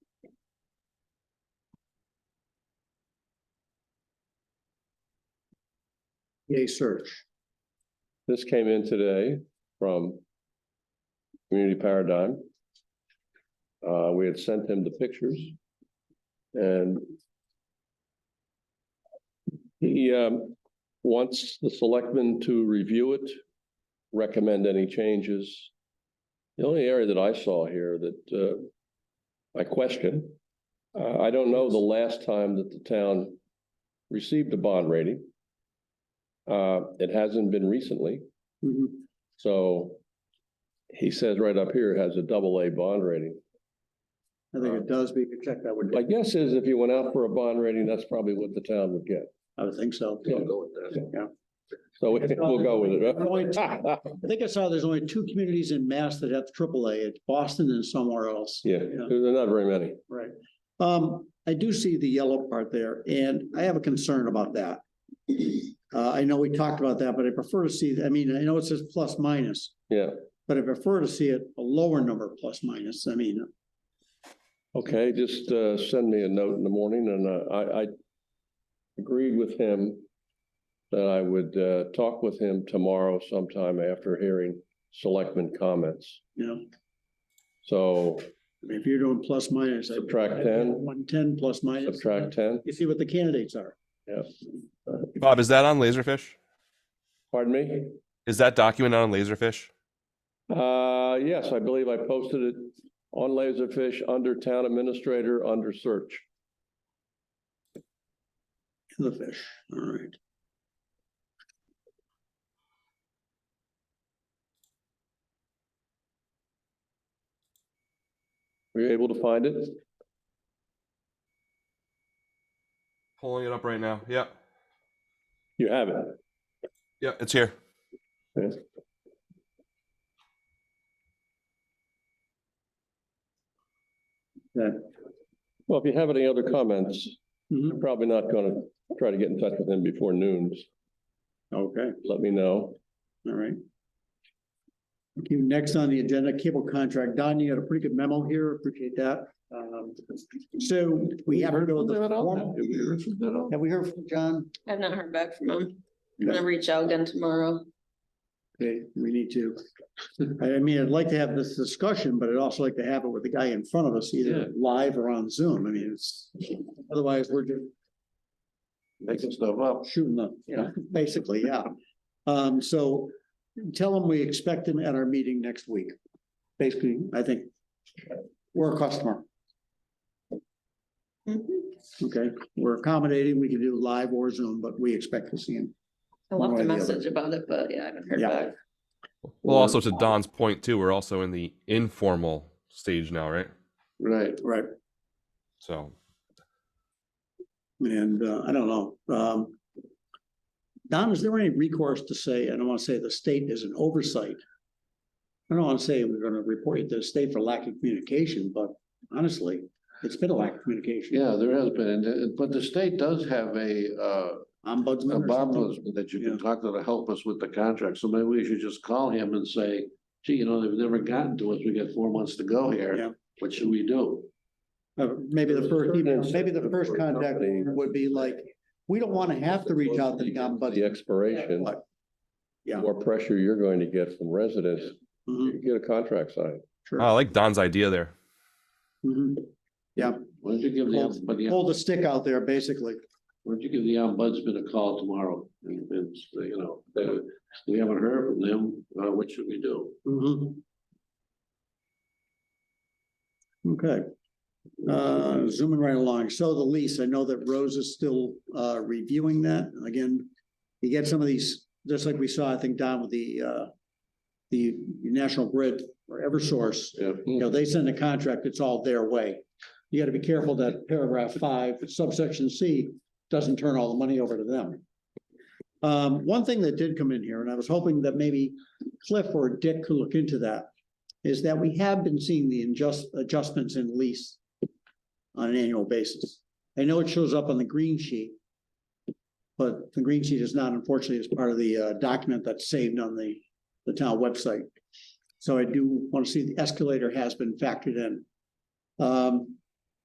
EA search. This came in today from Community Paradigm. Uh, we had sent him the pictures and he, um, wants the selectmen to review it, recommend any changes. The only area that I saw here that, uh, I question, uh, I don't know the last time that the town received a bond rating. Uh, it hasn't been recently. Mhm. So he says right up here it has a double A bond rating. I think it does, we could check that one. My guess is if you went out for a bond rating, that's probably what the town would get. I would think so. Yeah. go with that. Yeah. So we'll go with Point. it. I think I saw there's only two communities in Mass that have AAA, it's Boston and somewhere else. Yeah, there are not very many. Right. Um, I do see the yellow part there, and I have a concern about that. Uh, I know we talked about that, but I prefer to see, I mean, I know it says plus minus, Yeah, but I prefer to see it a lower number plus minus, I mean, okay, just uh send me a note in the morning and uh, I I agreed with him that I would uh talk with him tomorrow sometime after hearing selectmen comments. you know, I So mean, if you're doing plus minus. I- Subtract 10. One ten plus minus. subtract ten, You see what the candidates are. yeah, Bob, is that on Laserfish? pardon me? Is that document on Laserfish? Uh, yes, I believe I posted it on Laserfish under Town Administrator, under Search. The fish, all right. Were you able to find it? Pulling it up right now. Yeah. You have it. Yeah, it's here. Well, if you have any other comments, Mhm. I'm probably not gonna try to get in touch with him before noon. Okay, Let me know. all right. Thank you. Next on the agenda, cable contract. Don, you got a pretty good memo here. Appreciate that. Um, so we have to go. to the formal- Have we heard from John? I've not heard back from him. I'm gonna reach out again tomorrow. Okay, we need to. I mean, I'd like to have this discussion, but I'd also like to have it with the guy in front of us, either live or on Zoom. I mean, it's, otherwise we're just Making stuff up. shooting the, you know, basically, yeah. Um, so tell them we expect him at our meeting next week. Basically, I think we're a customer, Mhm. okay? We're accommodating, we can do live or Zoom, but we expect to see him. I One left way a or the message other. about it, but yeah, I haven't heard Yeah. back. Well, also to Don's point too, we're also in the informal stage now, right? Right. Right. So And, uh, I don't know, um. Don, is there any recourse to say, I don't want to say the state is an oversight? I don't want to say we're gonna report you to the state for lack of communication, but honestly, it's been a lack of communication. Yeah, there has been, and- and- but the state does have a, uh, a Ombudsman or something? bombless that you Yeah. can talk to to help us with the contract, so maybe we should just call him and say, gee, you know, they've never gotten to us, we got four months to go Yeah. here, what should we do? Uh, maybe the first, email- maybe the first For a contact company- would be like, we don't want to have to reach out to the The ombudsman. expiration, What? the Yeah. more pressure you're going to get from residents, Mhm, you get a contract signed. Oh, I Sure. like Don's idea there. Mhm. Why don't you give Hold- the, but the, why Hold the stick out there, basically. don't you give the ombudsman a call tomorrow? And, and, say, you know, they- we haven't heard from them, uh, what should we do? Mhm. Okay. Uh, zooming right along. So the lease, I know that Rose is still, uh, reviewing that. Again, you get some of these, just like we saw, I think, down with the, uh, the National Grid or Eversource, Yeah. you know, they send a contract, it's all their way. You gotta be careful that paragraph five subsection C doesn't turn all the money over to them. Um, one thing that did come in here, and I was hoping that maybe Cliff or Dick could look into that, is that we have been seeing the adjust, adjustments in lease on an annual basis. I know it shows up on the green sheet, but the green sheet is not unfortunately as part of the, uh, document that's saved on the, the town website. So I do want to see the escalator has been factored in. Um,